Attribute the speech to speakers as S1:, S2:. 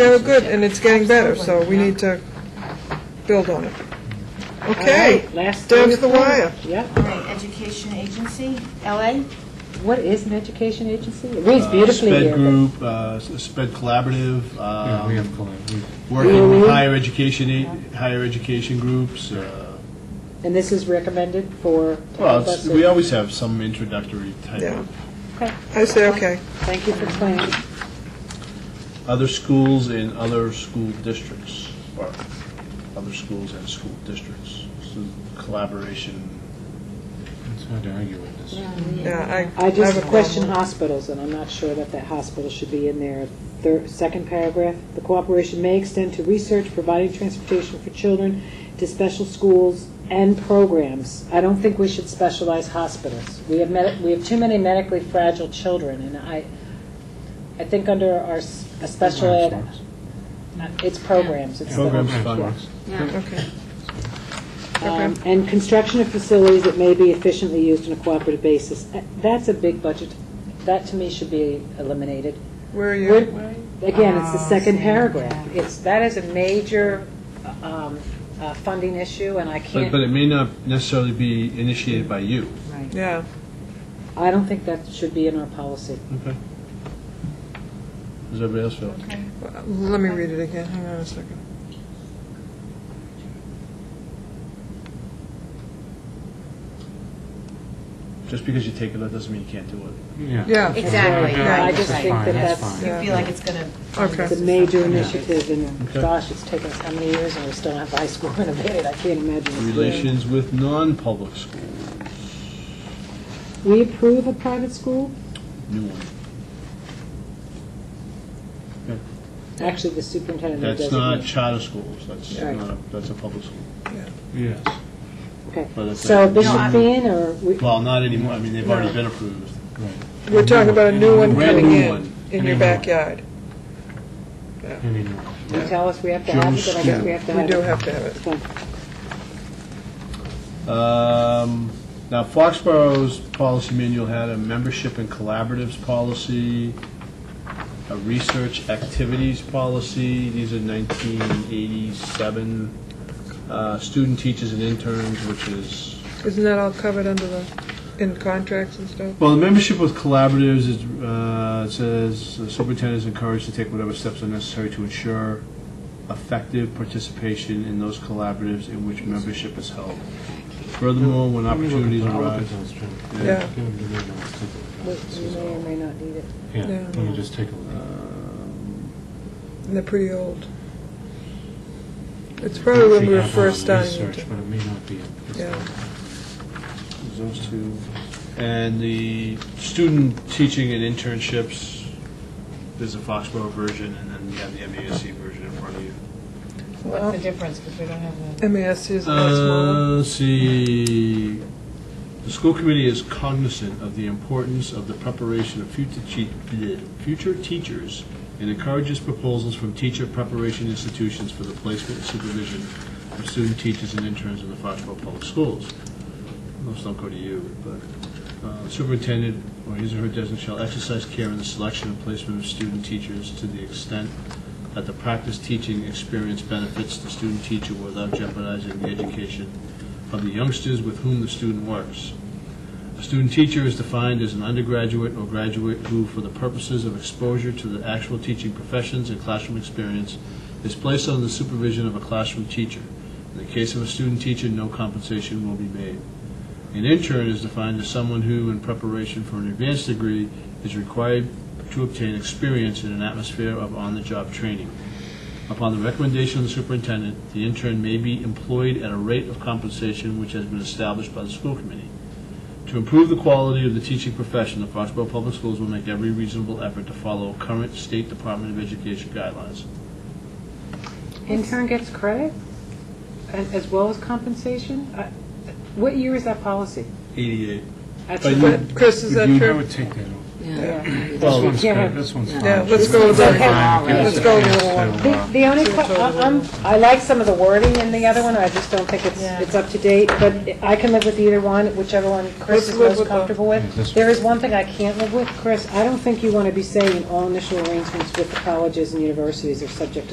S1: Very good, and it's getting better, so we need to build on it. Okay,
S2: All right, last thing.
S1: down to the wire.
S2: Yep.
S3: All right, education agency, LA?
S2: What is an education agency? It reads beautifully
S4: Uh, SPED
S2: here. but-
S4: Group, uh, SPED Collaborative,
S5: Yeah, we
S4: uh,
S5: have collaborative.
S4: working with higher education, a- higher education groups. uh,
S2: And this is recommended for to
S4: Well,
S2: help
S4: it's-
S2: us.
S4: we
S2: in-
S4: always have some introductory type
S1: Yeah.
S4: of,
S2: Okay,
S1: I say okay.
S2: Thank you for explaining.
S4: other schools in other school districts, or other schools and school districts, So collaboration.
S5: It's hard to argue with this.
S1: Yeah, I.
S2: I just
S1: have a
S2: question
S1: problem.
S2: hospitals, and I'm not sure that that hospital should be in there. Third, second paragraph, the cooperation may extend to research, providing transportation for children to special schools and programs. I don't think we should specialize hospitals. We have med, we have too many medically fragile children, and I, I think under our, s- a special ed,
S5: Programs.
S2: it's programs. It's the-
S4: Programs fund.
S5: Programs.
S1: Okay.
S2: Um, And construction of facilities that may be efficiently used on a cooperative basis. Uh, That's a big budget. That, to me, should be eliminated.
S1: Where are you?
S2: We're- Again, it's the second paragraph. It's, that is a major um, uh, funding issue, and I
S4: But, but
S2: can't,
S4: it may not necessarily be initiated by you.
S1: Yeah,
S2: I don't think that should be in our policy.
S4: Okay. Does everybody else feel?
S1: Well, let me read it again, hang on a second.
S4: Just because you take it, that doesn't mean you can't do it.
S5: Yeah.
S1: Yeah.
S3: Exactly,
S5: Yeah,
S3: right,
S2: I just
S3: right.
S2: think that
S5: That's
S2: that's-
S5: fine.
S3: You feel like it's going to...
S1: Okay.
S2: It's a major initiative,
S4: Okay.
S2: and gosh, it's taken us how many years, and we still don't have high school renovated. I can't imagine. it's-
S4: Relations with non-public schools,
S2: We approve a private school?
S4: new one.
S2: Actually, the superintendent
S4: That's
S2: does
S4: not charter schools, that's
S2: Right.
S4: not, a- that's a public school.
S5: Yes.
S4: But
S2: Okay,
S4: it's
S2: so
S4: like- No,
S2: Bishop
S4: I'm-
S2: Finn, or, we-
S4: Well, not anymore, I mean, they've already been approved.
S1: We're talking about a new one
S4: Brand
S1: coming
S4: new
S1: in,
S4: one.
S1: in your
S5: Anyone.
S1: backyard.
S5: Any new
S2: you tell us we have to have it, then I guess we have to
S1: We
S2: have it.
S1: do have to have it.
S2: Fine.
S4: Um, Now, Foxborough's policy manual had a membership and collaboratives policy, a research activities policy, these are 1987, uh, student teachers and interns, which is
S1: Isn't that all covered under the, in contracts and stuff?
S4: Well, the membership with collaboratives is, uh, it says, "The superintendent is encouraged to take whatever steps are necessary to ensure effective participation in those collaboratives in which membership is held. Furthermore, when opportunities arise.
S1: Yeah.
S2: We we may or may not need it.
S5: Yeah,
S1: Yeah. Uh,
S5: let me just take a look.
S1: And They're pretty old. It's probably when we were first starting.
S5: Research, but it may not be.
S1: Yeah.
S4: um, Those two. And the student teaching and internships, there's a Foxborough version, and then you have the MASC version in front of you.
S3: What's the difference, because we don't have the...
S1: MASC is not smaller.
S4: Uh, let's see, the school committee is cognizant of the importance of the preparation of future, chea- bleh, future teachers and encourages proposals from teacher preparation institutions for the placement and supervision of student teachers and interns in the Foxborough Public Schools. Most don't go to you, but uh, superintendent or his or her designee shall exercise care in the selection and placement of student teachers to the extent that the practice teaching experience benefits the student teacher without jeopardizing the education of the youngsters with whom the student works. A student teacher is defined as an undergraduate or graduate who, for the purposes of exposure to the actual teaching professions and classroom experience, is placed under the supervision of a classroom teacher. In the case of a student teacher, no compensation will be made. An intern is defined as someone who, in preparation for an advanced degree, is required to obtain experience in an atmosphere of on-the-job training. Upon the recommendation of the superintendent, the intern may be employed at a rate of compensation which has been established by the school committee. To improve the quality of the teaching profession, the Foxborough Public Schools will make every reasonable effort to follow current State Department of Education guidelines.
S2: Intern gets credit a- as well as compensation? I- What year is that policy?
S4: Eighty-eight.
S2: That's-
S4: But you-
S1: But Chris, is that
S5: I
S1: true?
S5: would take that off. This one's
S2: Yeah.
S5: good, this one's fine.
S1: Yeah, let's go with the, let's go with the one.
S5: Yes,
S2: The the only, que- I- I'm- I like some of the wording in the other one, I just don't think it's,
S3: Yeah.
S2: it's up to date, but I can live with either one, whichever one
S1: Let's
S2: Chris is
S1: live
S2: most
S1: with the-
S2: comfortable
S5: Yeah, this
S2: with.
S5: one.
S2: There is one thing I can't live with, Chris, I don't think you want to be saying all initial arrangements with the colleges and universities are subject to